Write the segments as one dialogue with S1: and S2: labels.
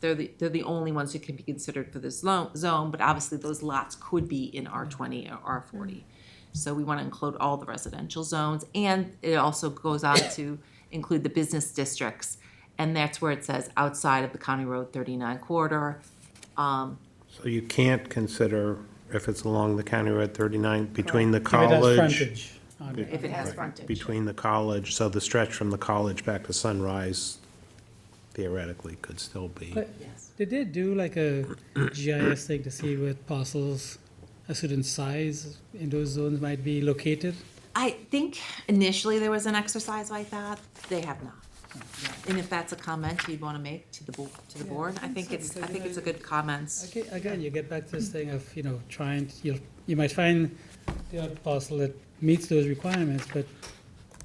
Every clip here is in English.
S1: they're the, they're the only ones who can be considered for this lo- zone, but obviously those lots could be in R twenty or
S2: Mm.
S1: R forty. So we wanna include all the residential zones, and it also goes on to include the business districts. And that's where it says outside of the County Road thirty-nine corridor,
S3: So you can't consider if it's along the County Road 39, between the
S2: If it has
S3: college.
S2: frontage on it.
S1: if it has frontage.
S3: Between the college, so the stretch from the college back to Sunrise theoretically could still be.
S2: But
S1: Yes.
S2: Did they do like a GIS thing to see where parcels, a certain size in those zones might be located?
S1: I think initially there was an exercise like that, they have not. And if that's a comment you'd wanna make to the bo- to the
S2: Yeah, I
S1: board, I think
S2: think so,
S1: it's, I
S2: because,
S1: think
S2: you
S1: it's a
S2: know,
S1: good comments.
S2: Aga- Again, you get back to this thing of, you know, trying, to- you, you might find the odd parcel that meets those requirements, but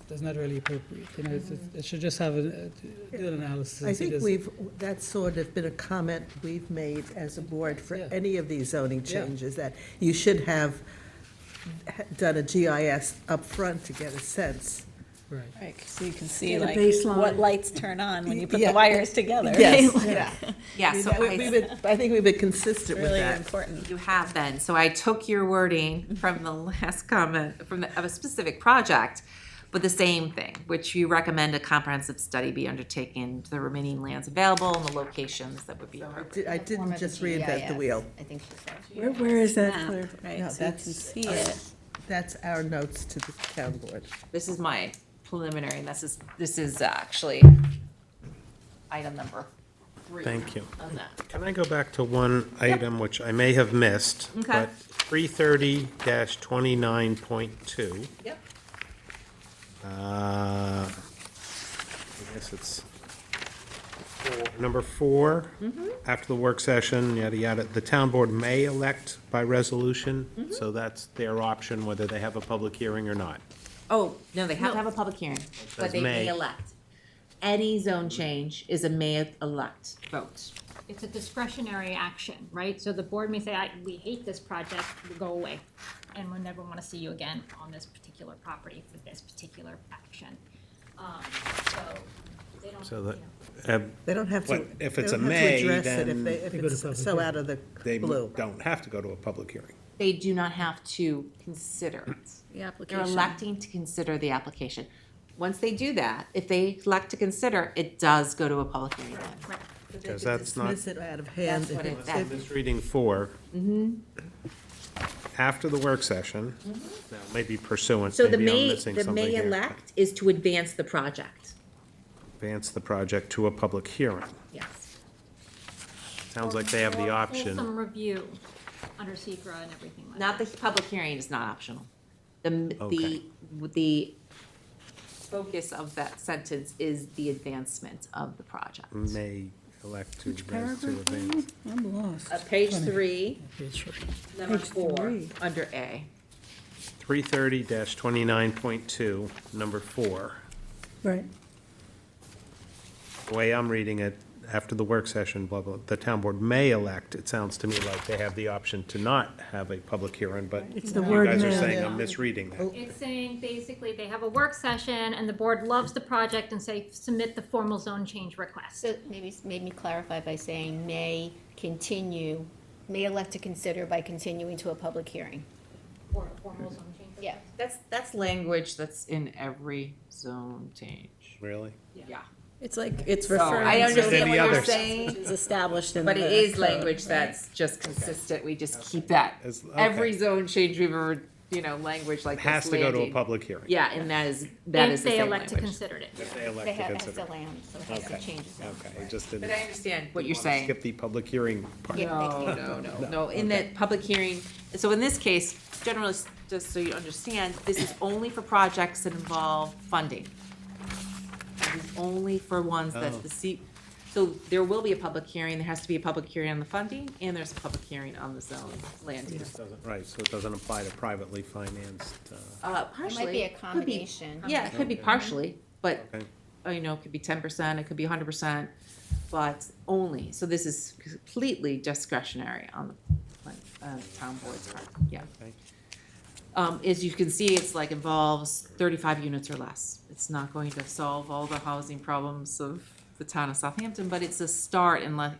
S2: that's not really appropriate, you know, it's- it's- it should just have a, a- do an analysis.
S4: I
S2: and see
S4: think
S2: does-
S4: we've, that's sort of been a comment we've made as a board for
S2: Yeah.
S4: any of these zoning
S2: Yeah.
S4: changes, that you should have done a GIS up front to get a sense.
S2: Right.
S5: Right, so you can see
S4: Get a
S5: like
S4: baseline.
S5: what lights turn on when you put
S4: Yeah.
S5: the wires together.
S4: yeah.
S1: Yeah, so
S4: We- we've
S1: I,
S4: been- I think we've been consistent with
S5: Really
S4: that.
S5: important.
S1: you have been, so I took your wording from the last comment, from the, of a specific project, but the same thing, which you recommend a comprehensive study be undertaken to the remaining lands available and the locations that would be
S4: I
S1: appropriate.
S4: di- I didn't just reinvent the wheel.
S5: I think she said.
S6: Where, where is that clear?
S5: Right,
S4: No,
S5: so you can
S4: that's-
S5: see it.
S4: That's our notes to the town board.
S1: This is my preliminary, and this is, this is actually item number three.
S3: Thank you.
S1: On that.
S3: Can I go back to one item which I may have missed?
S1: Okay.
S3: But 330-29.2.
S1: Yep.
S3: Uh, I guess it's four- number four.
S1: Mm-hmm.
S3: After the work session, yada, yada, the town board may elect by resolution.
S1: Mm-hmm.
S3: So that's their option, whether they have a public hearing or not.
S1: Oh, no, they have to have a public hearing, but
S3: says
S1: they may
S3: may.
S1: elect. Any zone change is a may elect vote.
S7: It's a discretionary action, right? So the board may say, I, we hate this project, we'll go away. And we'll never wanna see you again on this particular property for this particular action. Um, so they don't,
S3: So that,
S7: you know,
S3: uh,
S4: They don't have to.
S3: But if
S4: they
S3: it's
S4: don't
S3: a
S4: have to
S3: may,
S4: address it
S3: then
S4: If they- if
S2: They go to
S4: it's
S2: public
S4: so
S2: hearing.
S4: out of the
S3: they
S4: blue.
S3: don't have to go to a public hearing.
S1: They do not have to consider it.
S5: The
S1: They're
S5: application.
S1: electing to consider the application. Once they do that, if they elect to consider, it does go to a public hearing then.
S7: right.
S3: Because that's not
S4: Dismiss it out of hand.
S1: That's what
S4: if
S1: it-
S4: it's-
S1: that- Mm-hmm.
S3: Misreading four. After the work session, now maybe pursuant,
S1: Mm-hmm. So the
S3: maybe I'm
S1: may,
S3: missing
S1: the
S3: something
S1: may
S3: here.
S1: elect is to advance the project.
S3: Advance the project to a public hearing.
S1: Yes. Oh,
S3: Sounds like they have
S7: Or
S3: the option.
S7: Fulsome review under secra and everything like
S1: Not
S7: that.
S1: the public hearing is not optional. The, m- the,
S3: Okay.
S1: the focus of that sentence is the advancement of the project.
S3: May elect to advance to
S6: Paragraph
S3: advance.
S6: one? I'm lost.
S1: Uh, page three,
S2: Okay, sure.
S1: number
S6: Page
S1: four,
S6: three.
S1: under A.
S3: Three thirty twenty-nine point two, number four.
S6: Right.
S3: The way I'm reading it, after the work session, blah, blah, the town board may elect, it sounds to me like they have the option to not have a public hearing, but you
S6: It's the word
S3: guys are
S6: may.
S3: saying I'm misreading that.
S7: It's saying basically they have a work session and the board loves the project and say, submit the formal zone change request.
S8: So maybe, s- maybe clarify by saying may continue, may elect to consider by continuing to a public hearing.
S7: Or a formal zone change.
S8: Yeah.
S1: That's, that's language that's in every zone change.
S3: Really?
S1: Yeah.
S5: It's like, it's
S1: So I
S5: referring to
S1: understand
S3: Any
S1: what you're
S3: others?
S1: saying,
S5: it's established in the.
S1: but it is
S5: code,
S1: language
S5: right?
S1: that's just consistent. We just keep that.
S3: As- okay.
S1: Every zone change we've ever, you know, language like this
S3: Has to go to a
S1: landing.
S3: public hearing.
S1: Yeah, and that is, that is the same
S7: If they elect to
S1: language.
S7: consider it.
S3: If they elect
S8: They
S3: to
S8: have, has
S3: consider
S8: the
S3: it.
S8: land, so it has to
S3: Okay.
S8: change itself.
S3: Okay, I just didn't.
S1: But I understand what you're
S3: wanna
S1: saying.
S3: Skip the public hearing part.
S8: Yeah.
S1: No, no, no, no, in that public hearing, so in this case, generally, s- just so you understand, this is only for projects that involve funding. This is only for ones
S3: Oh.
S1: that the C, so there will be a public hearing, there has to be a public hearing on the funding, and there's a public hearing on the zone land use.
S3: Doesn't- Right, so it doesn't apply to privately financed, uh,
S1: Uh,
S8: It
S1: partially.
S8: might be a
S1: could
S8: combination.
S1: Yeah, it could be partially, but,
S3: okay.
S1: uh, you know, it could be ten percent, it could be hundred percent, but only, so this is completely discretionary on the, uh, town board's part, yeah.
S3: Okay.
S1: Um, as you can see, it's like involves thirty-five units or less. It's not going to solve all the housing problems of the town of Southampton, but it's a start and like,